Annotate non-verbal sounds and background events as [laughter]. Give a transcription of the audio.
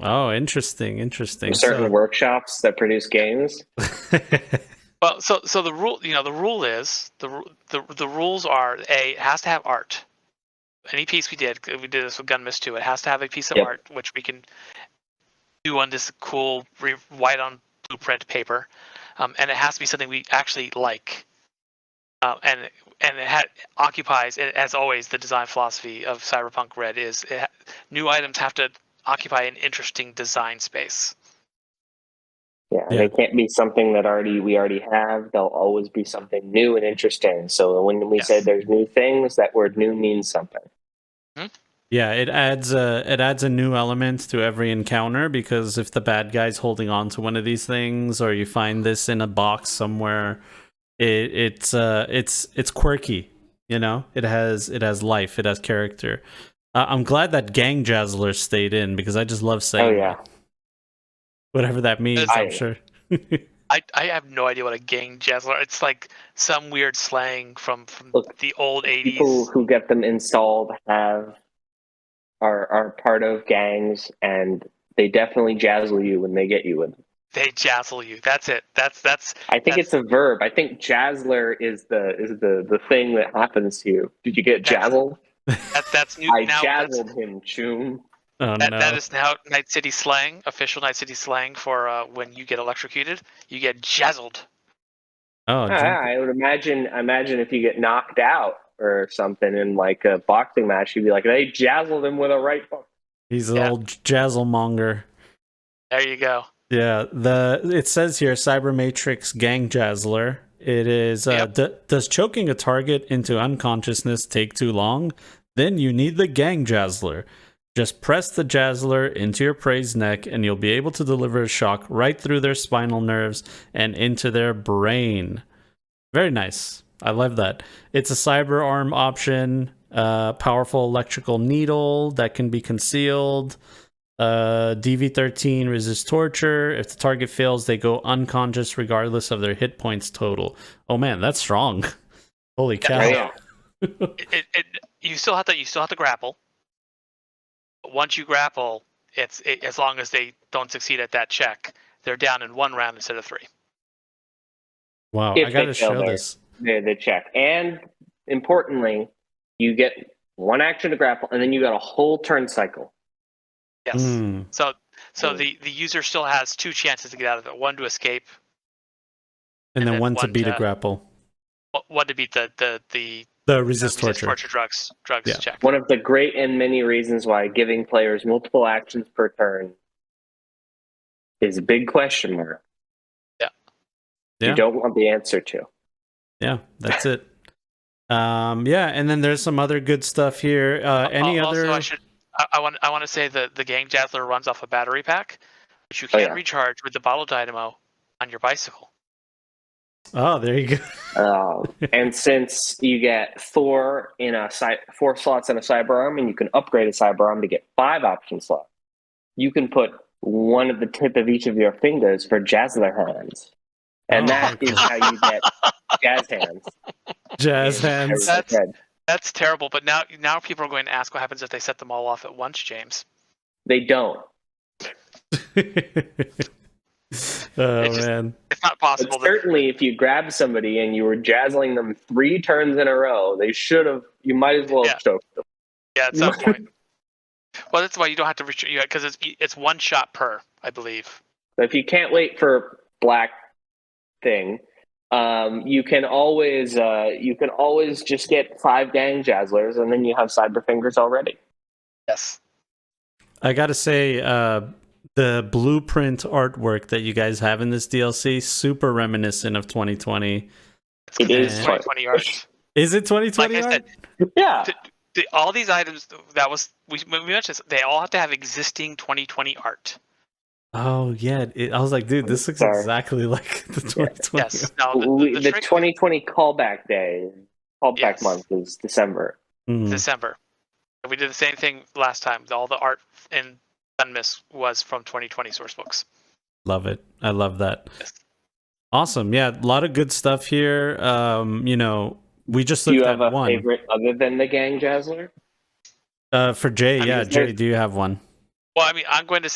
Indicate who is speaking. Speaker 1: Oh, interesting, interesting.
Speaker 2: from certain
Speaker 1: So-
Speaker 2: workshops that produce games.
Speaker 3: Well, so so the rule, you know, the rule is the ru- the the rules are a it has to have art. Any piece we did, we did this with Gun Miss too. It has to have a piece of
Speaker 2: Yep.
Speaker 3: art which we can do on this cool re- white on blueprint paper, um, and it has to be something we actually like. Uh, and and it ha- occupies, a- as always, the design philosophy of Cyberpunk Red is it ha- new items have to occupy an interesting design space.
Speaker 2: Yeah,
Speaker 1: Yeah.
Speaker 2: they can't be something that already we already have. They'll always be something new and interesting. So when we
Speaker 3: Yes.
Speaker 2: say there's new things, that word new means something.
Speaker 1: [laughs] Yeah, it adds a it adds a new element to every encounter because if the bad guy's holding on to one of these things or you find this in a box somewhere, it it's uh it's it's quirky, you know? It has it has life, it has character. Uh, I'm glad that Gang Jazzler stayed in because I just love saying
Speaker 2: Oh yeah,
Speaker 1: that. whatever that means,
Speaker 3: It's-
Speaker 1: I'm
Speaker 2: I-
Speaker 1: sure. [laughs] Oh,
Speaker 3: I, I have no idea what a gang jazzler. It's like some weird slang from, from
Speaker 2: Look,
Speaker 3: the old eighties.
Speaker 2: people who get them installed have are are part of gangs, and they definitely jazzle you when they get you with them.
Speaker 3: They jazzle you. That's it. That's that's
Speaker 2: I think
Speaker 3: That's-
Speaker 2: it's a verb. I think jazzler is the is the the thing that happens to you. Did you get
Speaker 3: That's-
Speaker 2: jazzled?
Speaker 3: that's that's new.
Speaker 2: I
Speaker 3: now that's-
Speaker 2: jazzled him, Choom.
Speaker 1: Oh
Speaker 3: that,
Speaker 1: no.
Speaker 3: that is now Night City slang, official Night City slang for uh, when you get electrocuted, you get jazzled.
Speaker 1: oh,
Speaker 2: Ah,
Speaker 1: Jim-
Speaker 2: I would imagine imagine if you get knocked out or something in like a boxing match, you'd be like, they jazzled him with a right hook.
Speaker 1: he's an
Speaker 3: yeah.
Speaker 1: old jazzlemonger.
Speaker 3: There you go.
Speaker 1: Yeah, the it says here Cyber Matrix Gang Jazzler. It is uh,
Speaker 3: Yep.
Speaker 1: d- does choking a target into unconsciousness take too long? Then you need the Gang Jazzler. Just press the jazzler into your prey's neck and you'll be able to deliver a shock right through their spinal nerves and into their brain. Very nice. I love that. It's a cyber arm option, uh, powerful electrical needle that can be concealed. Uh, DV13 resists torture. If the target fails, they go unconscious regardless of their hit points total. Oh man, that's strong. [laughs] Holy cow.
Speaker 2: Oh,
Speaker 3: yeah. It, it, it, you still have to you still have to grapple. But once you grapple, it's it, as long as they don't succeed at that check, they're down in one round instead of three.
Speaker 1: Wow,
Speaker 2: If
Speaker 1: I
Speaker 2: they
Speaker 1: gotta
Speaker 2: fail
Speaker 1: show
Speaker 2: there.
Speaker 1: this.
Speaker 2: the, the check. And importantly, you get one action to grapple, and then you got a whole turn cycle.
Speaker 3: Yes.
Speaker 1: Hmm.
Speaker 3: So so
Speaker 2: Mm.
Speaker 3: the, the user still has two chances to get out of it. One to escape,
Speaker 1: And,
Speaker 3: And
Speaker 1: then,
Speaker 3: then
Speaker 1: one to
Speaker 3: one
Speaker 1: beat a
Speaker 3: to-
Speaker 1: grapple.
Speaker 3: o- one to beat the the the
Speaker 1: The
Speaker 3: uh,
Speaker 1: resist, torture.
Speaker 3: drugs drugs
Speaker 1: Yeah.
Speaker 3: check.
Speaker 2: One of the great and many reasons why giving players multiple actions per turn is a big question mark.
Speaker 3: Yeah.
Speaker 1: Yeah.
Speaker 2: You don't want the answer to.
Speaker 1: Yeah, that's it. Um, yeah, and then there's some other good stuff here. Uh, any
Speaker 3: Al-
Speaker 1: other?
Speaker 3: Also, I should I, I want I want to say that the gang dazzler runs off a battery pack, which you
Speaker 2: Oh,
Speaker 3: can
Speaker 2: yeah.
Speaker 3: recharge with the bottle dynamo on your bicycle.
Speaker 1: Oh, there you go. [laughs]
Speaker 2: Um, and since you get four in a cy- four slots in a cyber arm, and you can upgrade a cyber arm to get five option slots, you can put one of the tip of each of your fingers for jazzler hands, and
Speaker 1: Oh,
Speaker 2: that
Speaker 1: okay.
Speaker 2: is how you get jazz hands.
Speaker 1: Jazz
Speaker 2: in
Speaker 1: hands.
Speaker 2: every
Speaker 3: That's-
Speaker 2: thread.
Speaker 3: That's terrible. But now now people are going to ask what happens if they set them all off at once, James.
Speaker 2: They don't.
Speaker 1: [laughs] oh
Speaker 3: just-
Speaker 1: man.
Speaker 3: It's not possible.
Speaker 2: But
Speaker 3: That,
Speaker 2: certainly, if you grab somebody and you were jazzling them three turns in a row, they should have. You might as well have
Speaker 3: Yeah.
Speaker 2: choked them.
Speaker 3: yeah, at some point. Well, that's why you don't have to recharge because it's it's one shot per, I believe.
Speaker 2: So if you can't wait for black thing, um, you can always uh, you can always just get five gang jazzlers, and then you have cyber fingers already.
Speaker 3: Yes.
Speaker 1: I gotta say, uh, the blueprint artwork that you guys have in this DLC super reminiscent of 2020.
Speaker 3: It's
Speaker 2: It
Speaker 3: 'cause
Speaker 1: is
Speaker 3: it's 2020 yards.
Speaker 1: Is it 2020?
Speaker 3: Like I said,
Speaker 2: Yeah,
Speaker 3: the, all these items that was we, we mentioned this, they all have to have existing 2020 art
Speaker 1: oh yeah. It, I was like, dude, this looks
Speaker 2: Sorry.
Speaker 1: exactly [laughs] like the 2020.
Speaker 3: yes no the,
Speaker 2: We- the,
Speaker 3: the, the trick
Speaker 2: 2020 callback day, callback
Speaker 3: Yes.
Speaker 2: month is December.
Speaker 1: Mm.
Speaker 3: is december we did the same thing last time all the art in Gunmiss was from 2020 source books
Speaker 1: Love it. I love that.
Speaker 3: Yes.
Speaker 1: Awesome. Yeah, a lot of good stuff here. Um, you know, we just
Speaker 2: Do you
Speaker 1: looked
Speaker 2: have a
Speaker 1: at one.
Speaker 2: favorite other than the gang jazzler?
Speaker 1: Uh for Jay,
Speaker 2: mean,
Speaker 1: yeah,
Speaker 2: is there-
Speaker 1: Jay, do you have one?
Speaker 3: well i mean i'm going to